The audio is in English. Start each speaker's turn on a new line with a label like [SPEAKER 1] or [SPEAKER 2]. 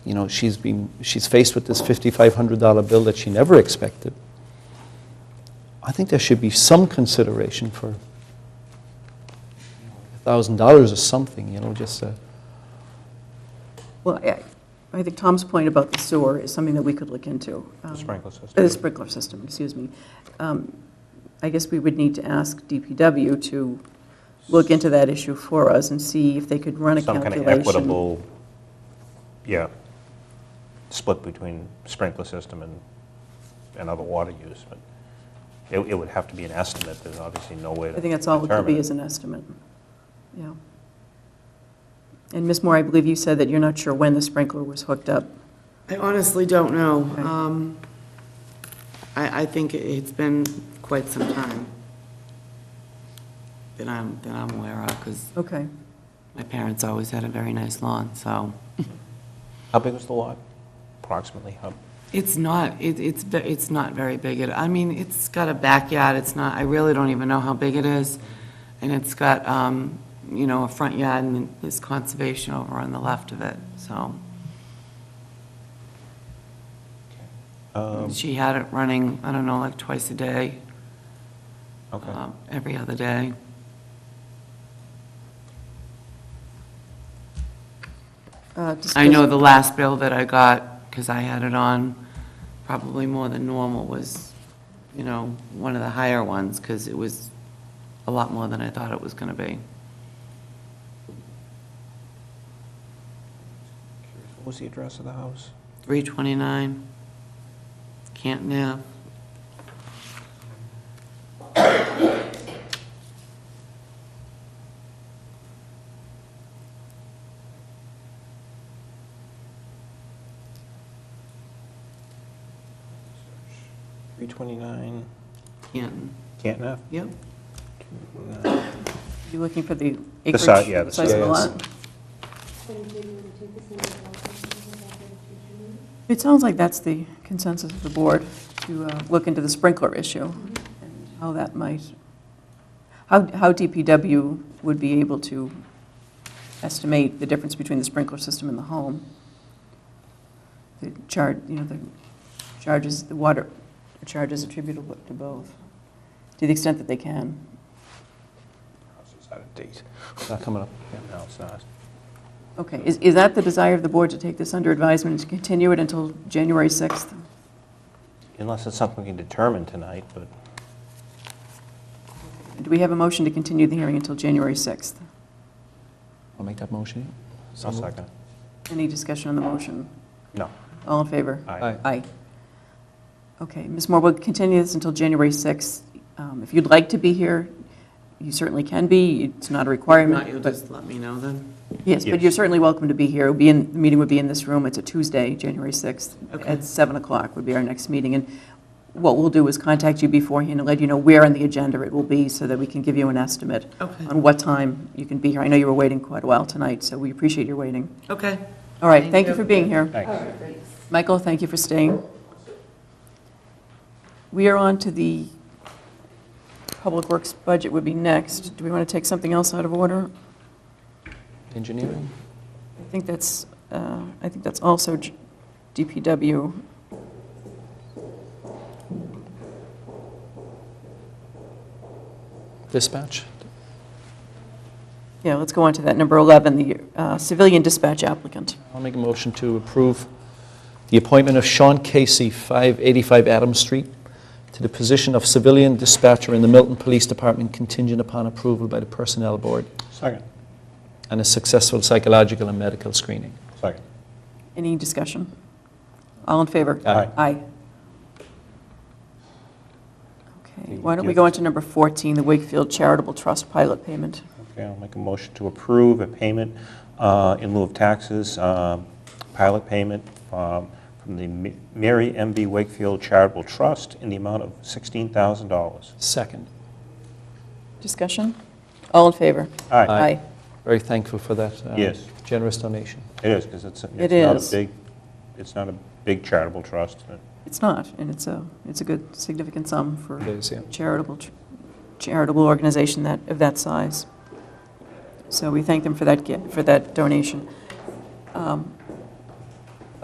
[SPEAKER 1] You know, she's been, she's faced with this $5,500 bill that she never expected. I think there should be some consideration for $1,000 or something, you know, just uh, a,
[SPEAKER 2] Well, I- I think Tom's point about the sewer is something that we could look into. Um,
[SPEAKER 3] sprinkler system.
[SPEAKER 2] uh, The sprinkler system, excuse me. Um, I guess we would need to ask DPW to look into that issue for us and see if they could run a
[SPEAKER 3] Some kind
[SPEAKER 2] calculation.
[SPEAKER 3] of equitable, yeah, split between sprinkler system and, and other water use, but it, it would have to be an estimate, there's obviously no way to
[SPEAKER 2] I think that's all it could
[SPEAKER 3] determine
[SPEAKER 2] be is an estimate. Yeah. And Ms. Moore, I believe you said that you're not sure when the sprinkler was hooked up.
[SPEAKER 4] I honestly don't know.
[SPEAKER 2] Okay.
[SPEAKER 4] Um, I, I think it's been quite some time that I'm, that I'm aware of, because
[SPEAKER 2] Okay.
[SPEAKER 4] my parents always had a very nice lawn, so.
[SPEAKER 3] How big was the lot, approximately? How,
[SPEAKER 4] It's not, it, it's, ve- it's not very big. It, I mean, it's got a backyard, it's not, I really don't even know how big it is. And it's got, um, you know, a front yard and there's conservation over on the left of it, so. She had it running, I don't know, like twice a day,
[SPEAKER 3] okay.
[SPEAKER 4] um, every other day.
[SPEAKER 2] Uh,
[SPEAKER 4] I
[SPEAKER 2] discuss-
[SPEAKER 4] know the last bill that I got, because I had it on probably more than normal, was, you know, one of the higher ones, because it was a lot more than I thought it was going to be.
[SPEAKER 3] What was the address of the house?
[SPEAKER 4] 329, Canton Ave.
[SPEAKER 3] Three twenty-nine
[SPEAKER 4] Canton.
[SPEAKER 3] Canton Ave?
[SPEAKER 4] Yep.
[SPEAKER 2] You looking for the
[SPEAKER 3] The
[SPEAKER 2] acreage?
[SPEAKER 3] si- yeah, the
[SPEAKER 2] size of the
[SPEAKER 3] size.
[SPEAKER 2] lot? It sounds like that's the consensus of the board, to uh, look into the sprinkler issue, and how that might, how how DPW would be able to estimate the difference between the sprinkler system and the home. The charge, you know, the charges, the water charges attributable to both, to the extent that they can.
[SPEAKER 3] House is out of date.
[SPEAKER 1] not coming uh, up.
[SPEAKER 3] Yeah, No, it's not.
[SPEAKER 2] Okay, is, is that the desire of the board to take this under advisement and to continue it until January 6th?
[SPEAKER 3] Unless it's something we can determine tonight, but
[SPEAKER 2] Do we have a motion to continue the hearing until January 6th?
[SPEAKER 1] I'll make that motion.
[SPEAKER 3] i second.
[SPEAKER 2] Any discussion on the motion?
[SPEAKER 3] No,
[SPEAKER 2] All in favor?
[SPEAKER 3] aye.
[SPEAKER 2] Aye. Okay, Ms. Moore, we'll continue this until January 6th. Um, If you'd like to be here, you certainly can be, it's not a
[SPEAKER 4] Not,
[SPEAKER 2] requirement.
[SPEAKER 4] you'll
[SPEAKER 2] but-
[SPEAKER 4] just let me know then?
[SPEAKER 2] Yes, but
[SPEAKER 3] Yes.
[SPEAKER 2] you're certainly welcome to be here. It'll be in, the meeting would be in this room. It's a Tuesday, January 6th.
[SPEAKER 4] Okay.
[SPEAKER 2] At 7 o'clock would be our next meeting. And what we'll do is contact you beforehand and let you know where on the agenda it will be so that we can give you an estimate
[SPEAKER 4] Okay.
[SPEAKER 2] on what time you can be here. I know you were waiting quite a while tonight, so we appreciate your waiting.
[SPEAKER 4] Okay.
[SPEAKER 2] All right,
[SPEAKER 4] Thank
[SPEAKER 2] thank you
[SPEAKER 4] you.
[SPEAKER 2] for being here.
[SPEAKER 3] Thanks.
[SPEAKER 2] Michael, thank you for staying. We are on to the Public Works budget would be next. Do we want to take something else out of order?
[SPEAKER 1] Engineering?
[SPEAKER 2] I think that's, uh, I think that's also G- DPW.
[SPEAKER 1] Dispatch?
[SPEAKER 2] Yeah, let's go on to that, number 11, the uh, civilian dispatch applicant.
[SPEAKER 1] I'll make a motion to approve the appointment of Sean Casey, 585 Adams Street, to the position of civilian dispatcher in the Milton Police Department contingent upon approval by the Personnel Board
[SPEAKER 3] Second,
[SPEAKER 1] and a successful psychological and medical screening.
[SPEAKER 3] second.
[SPEAKER 2] Any discussion? All in favor?
[SPEAKER 3] Aye.
[SPEAKER 2] Aye. Okay, why don't we go on to number 14, the Wakefield Charitable Trust pilot payment?
[SPEAKER 3] Okay, I'll make a motion to approve a payment uh, in lieu of taxes, um, pilot payment um, from the Ma- Mary M. B. Wakefield Charitable Trust in the amount of $16,000.
[SPEAKER 1] Second.
[SPEAKER 2] Discussion? All in favor?
[SPEAKER 3] Aye,
[SPEAKER 1] Aye. Very thankful for that uh,
[SPEAKER 3] Yes.
[SPEAKER 1] generous donation.
[SPEAKER 3] it is, because it's,
[SPEAKER 2] It
[SPEAKER 3] it's not
[SPEAKER 2] is.
[SPEAKER 3] a big, it's not a big charitable trust. but
[SPEAKER 2] It's not, and it's a, it's a good significant sum for
[SPEAKER 1] It is, yeah.
[SPEAKER 2] a charitable, charitable organization that, of that size. So we thank them for that, gi- for that donation. Um,